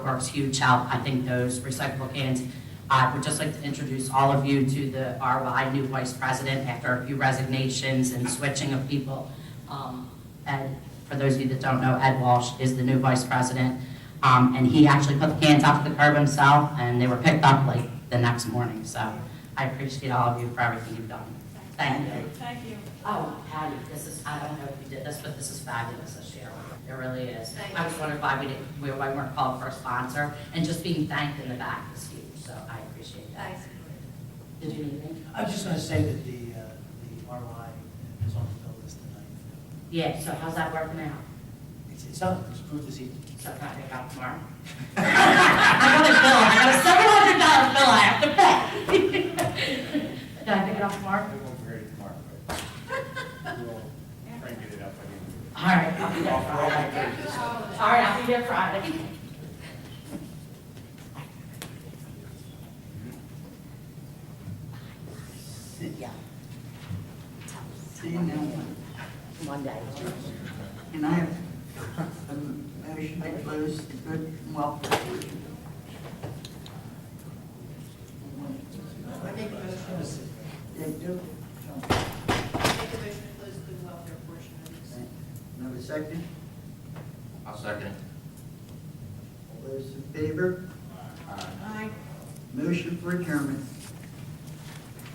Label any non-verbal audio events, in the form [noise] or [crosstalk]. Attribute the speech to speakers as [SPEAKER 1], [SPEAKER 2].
[SPEAKER 1] Works huge help. I think those recyclable cans. I would just like to introduce all of you to the, our I new vice president after a few resignations and switching of people. Um, Ed, for those of you that don't know, Ed Walsh is the new vice president. Um, And he actually put the cans off the curb himself and they were picked up like the next morning. So I appreciate all of you for everything you've done. Thank you.
[SPEAKER 2] Thank you.
[SPEAKER 1] Oh, Patty, this is, I don't know if you did this, but this is fabulous this year. It really is.
[SPEAKER 2] Thank
[SPEAKER 1] I was wondering why we didn't, we- why we weren't called for a sponsor, and just being thanked in the back is huge, so I appreciate that.
[SPEAKER 2] Thanks.
[SPEAKER 1] Did you need me?
[SPEAKER 3] I was just going to say that the, uh, the ROI is on the bill list tonight.
[SPEAKER 1] Yeah, so how's that working out?
[SPEAKER 3] It's, it's up, it's approved this evening.
[SPEAKER 1] So can I pick up tomorrow? [laughs] I got a bill, I got a seven hundred dollar bill I have to pay. [laughs] Can I pick it up tomorrow?
[SPEAKER 4] I won't hear it tomorrow, but we'll try and get it up by the end of the week.
[SPEAKER 1] All right, I'll be there Friday. All right, I'll be there Friday. [laughs] Yeah.
[SPEAKER 5] See you now.
[SPEAKER 1] Monday.
[SPEAKER 5] And I have a motion to close the good and welfare. They
[SPEAKER 2] Make
[SPEAKER 5] do.
[SPEAKER 2] a motion to close the welfare portion of this.
[SPEAKER 5] Another second?
[SPEAKER 6] I'll second it.
[SPEAKER 5] All those in favor?
[SPEAKER 2] Aye.
[SPEAKER 5] Motion for adjournment.